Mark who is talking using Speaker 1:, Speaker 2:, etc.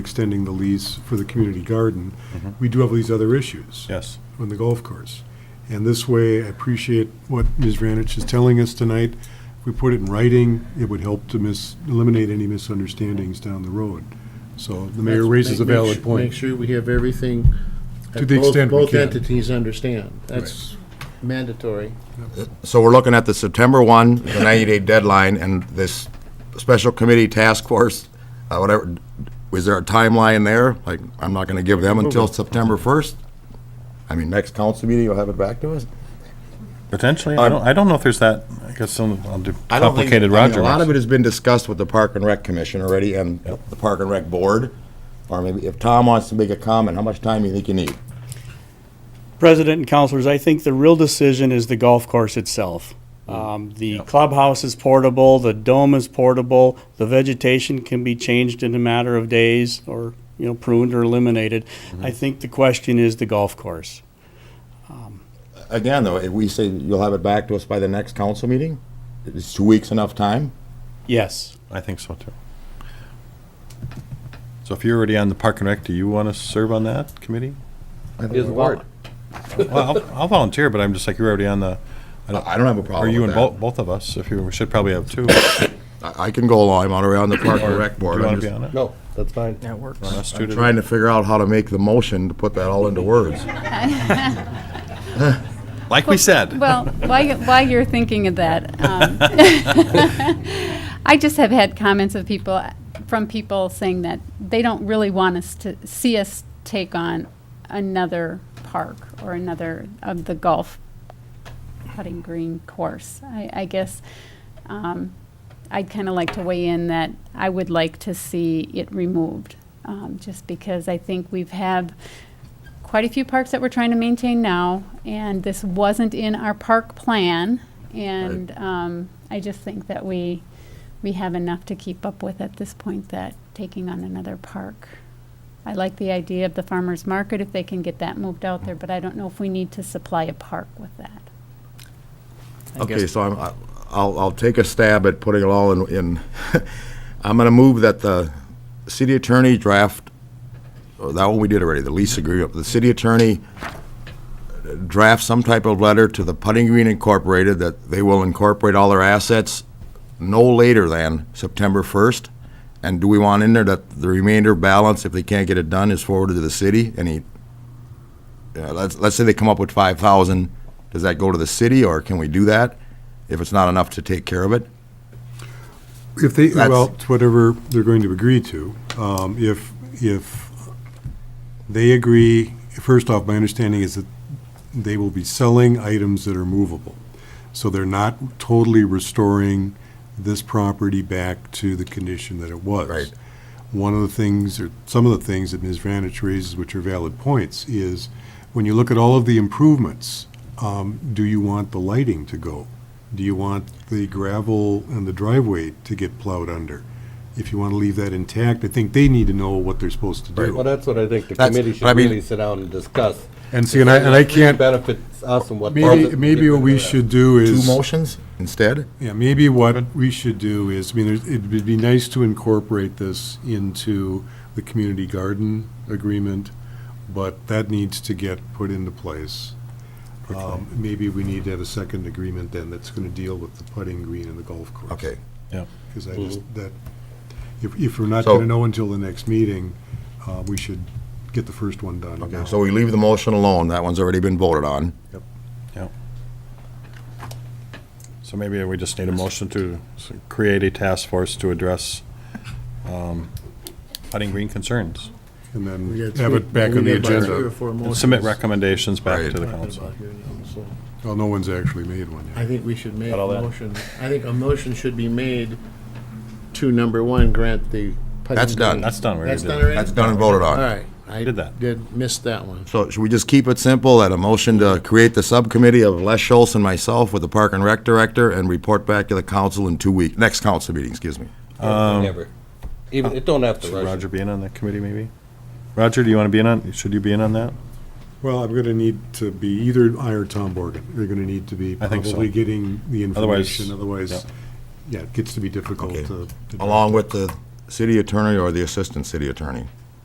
Speaker 1: extending the lease for the community garden, we do have these other issues
Speaker 2: Yes.
Speaker 1: on the golf course. And this way, I appreciate what Ms. Ranich is telling us tonight. If we put it in writing, it would help to mis, eliminate any misunderstandings down the road. So the mayor raises a
Speaker 3: Make- make
Speaker 1: valid
Speaker 3: su- Make
Speaker 1: point.
Speaker 3: sure we have everything.
Speaker 1: To
Speaker 3: that
Speaker 1: the
Speaker 3: both-
Speaker 1: extent we
Speaker 3: Both
Speaker 1: can.
Speaker 3: entities understand. That's mandatory.
Speaker 4: So we're looking at the September 1, the 90-day deadline, and this special committee task force, uh, whatever, is there a timeline there? Like, I'm not going to give them until September 1st? I mean, next council meeting, you'll have it back to us?
Speaker 2: Potentially, I don't, I don't know if there's that, I guess some, I'll do
Speaker 4: Um, I don't think-
Speaker 2: complicated
Speaker 4: I mean,
Speaker 2: Roger.
Speaker 4: A lot of
Speaker 2: wants.
Speaker 4: it has been discussed with the Park and Rec Commission already and the Park and Rec Board. Or maybe if Tom wants to make a comment, how much time do you think you need?
Speaker 5: President and counselors, I think the real decision is the golf course itself. Um, the clubhouse is portable, the dome is portable, the vegetation can be changed in a matter of days or, you know, pruned or eliminated. I think the question is the golf course.
Speaker 4: Again, though, if we say you'll have it back to us by the next council meeting, is two weeks enough time?
Speaker 5: Yes.
Speaker 2: I think so too. So if you're already on the Park and Rec, do you want to serve on that committee?
Speaker 6: Is what?
Speaker 2: Well, I'll- I'll volunteer, but I'm just like, you're already on the,
Speaker 4: I don't have a
Speaker 2: or
Speaker 4: problem
Speaker 2: you
Speaker 4: with
Speaker 2: and
Speaker 4: that.
Speaker 2: both, both of us, if you, we should probably have two. Do
Speaker 4: I I can go along, I'm on around the Park and Rec
Speaker 2: you
Speaker 4: Board.
Speaker 2: want
Speaker 4: I'm
Speaker 2: to be
Speaker 4: just
Speaker 2: on it?
Speaker 6: No, that's fine.
Speaker 2: Want us two
Speaker 4: I'm
Speaker 2: to-
Speaker 4: trying to figure out how to make the motion to put that all into words.
Speaker 2: Like we said.
Speaker 7: Well, while, you- while you're thinking of that, um, I just have had comments of people, from people saying that they don't really want us to, see us take on another park or another of the golf putting green course. I, I guess, um, I'd kind of like to weigh in that I would like to see it removed, um, just because I think we've had quite a few parks that we're trying to maintain now, and this wasn't in our park plan. And um, I just think that we, we have enough to keep up with at this point that taking on another park. I like the idea of the farmer's market, if they can get that moved out there, but I don't know if we need to supply a park with that.
Speaker 4: Okay, so I'm, I- I'll, I'll take a stab at putting it all in, in, I'm gonna move that the city attorney draft, oh, that one we did already, the lease agreement, the city attorney draft some type of letter to the Putting Green Incorporated that they will incorporate all their assets no later than September first. And do we want in there that the remainder balance, if they can't get it done, is forwarded to the city? Any, yeah, let's, let's say they come up with five thousand, does that go to the city, or can we do that if it's not enough to take care of it?
Speaker 1: If they,
Speaker 4: That's-
Speaker 1: well, it's whatever they're going to agree to, um, if, if they agree, first off, my understanding is that they will be selling items that are movable. So they're not totally restoring this property back to the condition that it was.
Speaker 4: Right.
Speaker 1: One of the things, or some of the things that Ms. Vanich raises, which are valid points, is when you look at all of the improvements, um, do you want the lighting to go? Do you want the gravel and the driveway to get plowed under? If you want to leave that intact, I think they need to know what they're supposed to do.
Speaker 6: Well, that's what I think the
Speaker 4: That's-
Speaker 6: committee
Speaker 4: but I
Speaker 6: should
Speaker 4: mean-
Speaker 6: really sit down and discuss.
Speaker 1: And see, and I, and I can't,
Speaker 6: Benefits us and what.
Speaker 1: maybe,
Speaker 6: doesn't.
Speaker 1: maybe what we should do
Speaker 4: Two
Speaker 1: is,
Speaker 4: motions instead?
Speaker 1: yeah, maybe what we should do is, I mean, there's- it would be nice to incorporate this into the community garden agreement, but that needs to get put into place. Um, maybe we need to have a second agreement then that's gonna deal with the putting green and the golf course.
Speaker 4: Okay. Mm-hmm.
Speaker 1: Because I just, that, if, if we're not
Speaker 4: So-
Speaker 1: gonna know until the next meeting, uh, we should get the first one done now.
Speaker 4: So we leave the motion alone, that one's already been voted on.
Speaker 2: So maybe we just need a motion to s- create a task force to address um, putting green concerns.
Speaker 1: And
Speaker 3: We
Speaker 1: then
Speaker 3: got
Speaker 1: have
Speaker 3: three-
Speaker 1: it back
Speaker 3: we
Speaker 1: on the
Speaker 3: got about three or
Speaker 1: agenda.
Speaker 3: four
Speaker 2: And submit
Speaker 3: motions.
Speaker 2: recommendations back
Speaker 4: Right.
Speaker 2: to the council.
Speaker 1: Well, no one's actually made one yet.
Speaker 3: I think we should make a
Speaker 2: Got all that?
Speaker 3: motion. I think a motion should be made to, number one, grant the. putting
Speaker 4: That's done.
Speaker 3: green.
Speaker 2: That's done, we already
Speaker 3: That's
Speaker 2: did
Speaker 3: done
Speaker 2: that.
Speaker 3: already?
Speaker 4: That's done and voted
Speaker 3: All
Speaker 4: on.
Speaker 3: right. I
Speaker 2: Did that.
Speaker 3: Did, missed that one.
Speaker 4: So should we just keep it simple, that a motion to create the subcommittee of Les Schultz and myself with the Park and Rec Director and report back to the council in two weeks, next council meeting, excuse me.
Speaker 6: Never.
Speaker 1: um,
Speaker 6: Even, it don't have to
Speaker 2: Should
Speaker 6: rush.
Speaker 2: Roger be in on that committee, maybe? Roger, do you want to be in on, should you be in on that?
Speaker 1: Well, I'm gonna need to be either I or Tom Morgan. You're gonna need to be
Speaker 2: I think so.
Speaker 1: probably getting the
Speaker 2: Otherwise-
Speaker 1: information, otherwise, yeah, it gets to be difficult
Speaker 4: Okay.
Speaker 1: to. to-
Speaker 4: Along with the city attorney or the assistant city attorney.